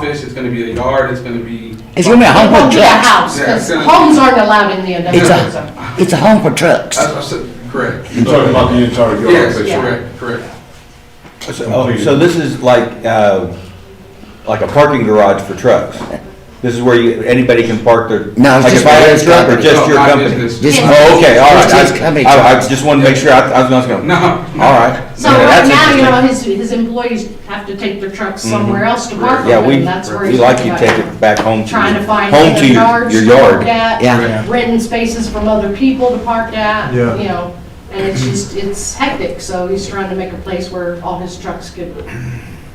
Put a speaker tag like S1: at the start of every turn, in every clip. S1: fence, it's gonna be a yard, it's gonna be,
S2: It's gonna be a
S3: It
S2: home
S3: won't
S2: for
S3: be a
S2: trucks.
S3: house,
S1: Yeah,
S3: because
S1: it's gonna-
S3: homes aren't allowed in the
S2: It's
S3: industrial zone.
S2: a, it's a home for trucks.
S3: Uh,
S1: I, I said, correct.
S4: You're talking about the entire yard?
S1: Yes,
S4: basically.
S3: Yeah.
S1: correct, correct.
S5: So oh, so this is like, uh, like a parking garage for trucks? This is where you, anybody can park their?
S2: No, it's
S5: like
S2: just
S5: if I had a
S2: his
S5: truck Or
S2: company.
S5: just
S1: No,
S5: your
S1: my
S5: company?
S1: business.
S2: Just-
S5: Oh, okay, all right.
S2: It's his company,
S5: I- I I
S2: trucks.
S5: just wanted to make sure, I I was not gonna.
S1: No, no.
S5: All right.
S3: So
S5: Yeah,
S3: right
S5: that's
S3: now, you
S5: interesting. Mm-hmm.
S3: know, his, his employees have to take their trucks somewhere else to park
S5: Yeah,
S3: them,
S5: we,
S3: and that's where
S5: we
S3: he's.
S5: like you
S3: talking
S5: take
S3: about
S5: it back home to.
S3: Trying to
S5: your-
S3: find
S5: Home
S3: other
S5: to your,
S3: yards
S5: your
S3: to park
S5: yard.
S3: at.
S2: Yeah.
S3: Renting spaces from other people to park at, you
S4: Yeah.
S3: know, and it's just, it's hectic, so he's trying to make a place where all his trucks could.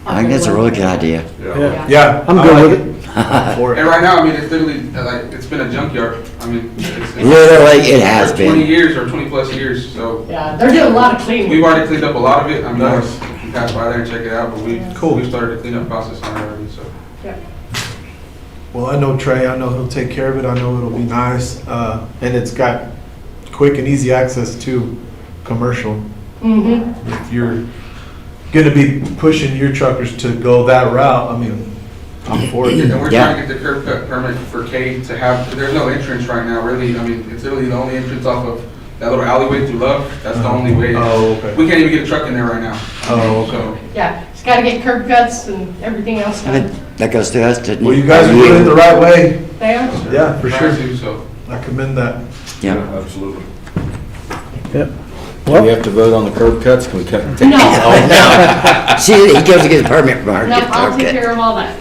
S2: I think that's a really good idea.
S1: Yeah.
S4: Yeah.
S6: I'm good with it.
S1: And right now, I mean, it's literally, uh, like, it's been a junkyard, I mean. it's- it's-
S2: Literally, it has
S1: for
S2: been.
S1: Twenty years or twenty plus years, so
S3: Yeah, they're doing a lot of cleaning.
S1: we've already cleaned up a lot of it, I mean, if you pass by there and check it out, but we, we've started the cleanup process on it already, so.
S6: Well, I know Trey, I know he'll take care of it, I know it'll be nice, uh, and it's got quick and easy access to commercial.
S3: hmm
S6: If you're gonna be pushing your truckers to go that route, I mean, I'm for
S1: And
S6: it.
S1: we're
S2: Yeah.
S1: trying to get the curb cut permit for K to have, there's no entrance right now, really, I mean, it's literally the only entrance off of that little alleyway through Love, that's the only way.
S6: Oh, okay.
S1: We can't even get a truck in there right now.
S6: Oh, okay.
S1: So,
S3: yeah, he's gotta get curb cuts and everything else
S2: I
S3: done
S2: think That goes to us, didn't it?
S6: Well, you guys are doing it the right way,
S3: there.
S6: yeah, for
S1: trying
S6: sure,
S1: to, So,
S6: I commend that.
S2: Yeah.
S4: Absolutely.
S5: Do we have to vote on the curb cuts? Can we cut? take
S3: No.
S5: these off?
S2: See, he goes to get a permit from her.
S3: No,
S2: Get the
S3: I'll take
S2: permit.
S3: care of all that.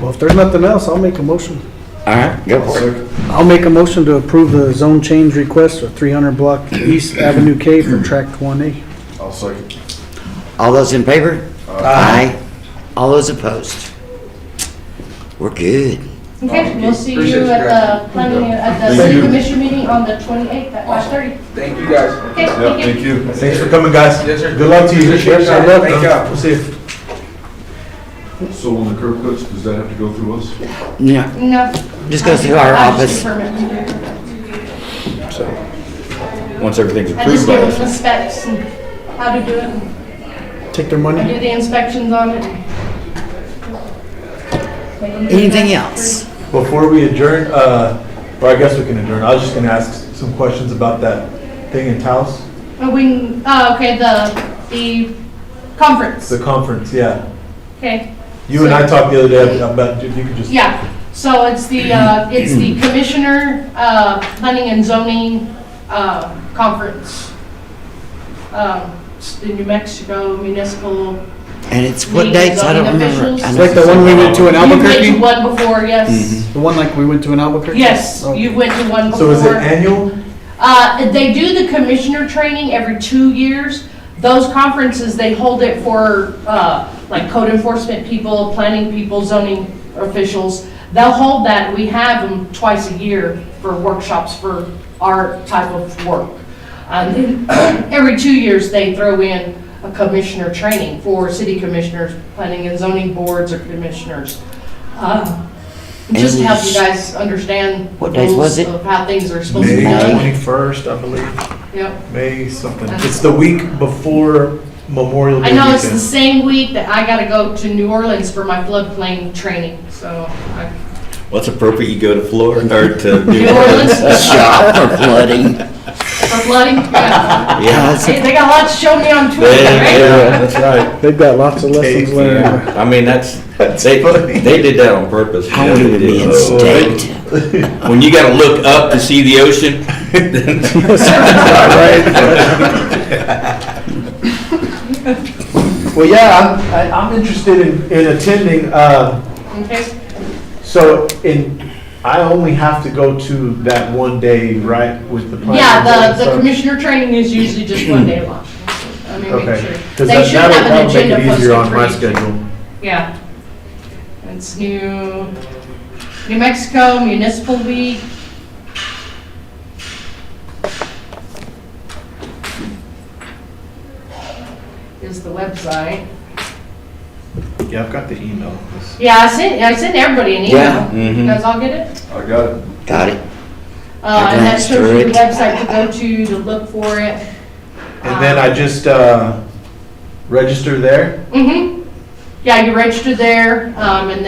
S7: Well, if there's nothing else, I'll make a motion.
S2: All right, go for it.
S7: I'll make a motion to approve the zone change request for 300 block East Avenue K for tract 1A.
S4: I'll second.
S2: All those in favor? Aye. All those opposed? We're good.
S3: Okay, we'll see
S1: Appreciate
S3: you
S1: you
S3: at
S1: guys.
S3: the planning, at the
S4: Thank
S3: city
S4: you.
S3: commission meeting on the twenty-eighth at five thirty.
S1: thank you guys.
S3: Okay,
S4: Yeah,
S3: thank
S4: thank
S3: you.
S4: you.
S6: Thanks for coming, guys.
S1: Yes, sir.
S6: Good luck to you.
S1: Appreciate it, guys. Thank you.
S6: We'll see you.
S4: So on the curb cuts, does that have to go through us?
S2: Yeah,
S3: No.
S2: Just go through our
S3: I'll just
S2: office.
S3: do permit.
S5: Once everything's
S3: I just
S5: approved by
S3: give them
S5: us.
S3: the specs and how to do it. and
S7: Take their
S3: I
S7: money.
S3: do the inspections on it.
S2: anything else?
S6: Before we adjourn, uh, or I guess we can adjourn, I was just gonna ask some questions about that thing in Taos,
S3: Oh, we, oh, okay, the, the conference.
S6: the conference, yeah.
S3: Okay.
S6: You and I talked the other day about, if you could just.
S3: Yeah, so it's the, uh, it's the Commissioner, uh, Planning and Zoning, uh, Conference. Um, It's the New Mexico Municipal.
S2: And it's what
S3: Meetings
S2: dates? I don't
S3: on the
S2: remember.
S3: visuals.
S2: I
S7: It's
S2: know
S7: like the one we went to
S3: You've
S7: in
S3: been to
S7: Albuquerque?
S3: one before, yes.
S7: The one like we went to in Albuquerque?
S3: Yes,
S7: Oh.
S3: you went to one before.
S6: So is it annual?
S3: Uh, they do the commissioner training every two years. Those conferences, they hold it for, uh, like code enforcement people, planning people, zoning officials. They'll hold that, we have them twice a year for workshops for our type of work. And then every two years, they throw in a commissioner training for city commissioners, planning and zoning boards or commissioners. Uh, Just to help you guys understand.
S2: What days
S3: rules
S2: was it?
S3: Of how things are supposed to be
S6: May
S3: done.
S6: twenty-first, I believe,
S3: Yep.
S6: May something. It's the week before Memorial Day
S3: Uh-huh. I know it's the
S6: weekend.
S3: same week that I gotta go to New Orleans for my floodplain training, so I,
S5: What's appropriate, you go to Florida, or to New
S3: New Orleans
S2: Shop for flooding.
S3: for flooding. yeah.
S2: Yeah, that's
S3: Hey, They got a lot to show me on Twitter, right?
S5: Yeah, that's right.
S7: They've got lots of lessons
S6: Hey,
S7: learned.
S5: Yeah, I mean, that's, they,
S6: funny.
S5: they did that on
S2: I
S5: purpose. you know,
S2: want
S5: they
S2: to be
S5: did.
S2: in state.
S5: When you gotta look up to see the ocean. then-
S6: Well, yeah, I'm, I- I'm interested in, in attending, uh,
S3: Okay.
S6: so in, I only have to go to that one day, right, with the. planning
S3: Yeah,
S6: and
S3: the, the
S6: zoning, so-
S3: commissioner training is usually just one day long. Let me make
S6: Okay,
S3: sure.
S6: because
S3: They
S6: that,
S3: should
S6: that'll,
S3: have an
S6: that'll make
S3: agenda
S6: it easier on my
S3: posted for each.
S6: schedule.
S3: Yeah. It's New, New Mexico Municipal League. Is the website.
S6: Yeah, I've got the email.
S3: Yeah, I sent, I sent everybody an
S2: Yeah,
S3: email. You
S5: Mhm.
S3: guys all get it?
S4: I got it.
S2: Got it.
S3: Uh, and that
S2: glanced
S3: shows
S2: through
S3: you the
S2: it.
S3: website to go to, to look for it. Ah.
S6: And then I just, uh, register there?
S3: Mm-hmm. Yeah, you register there, um, and then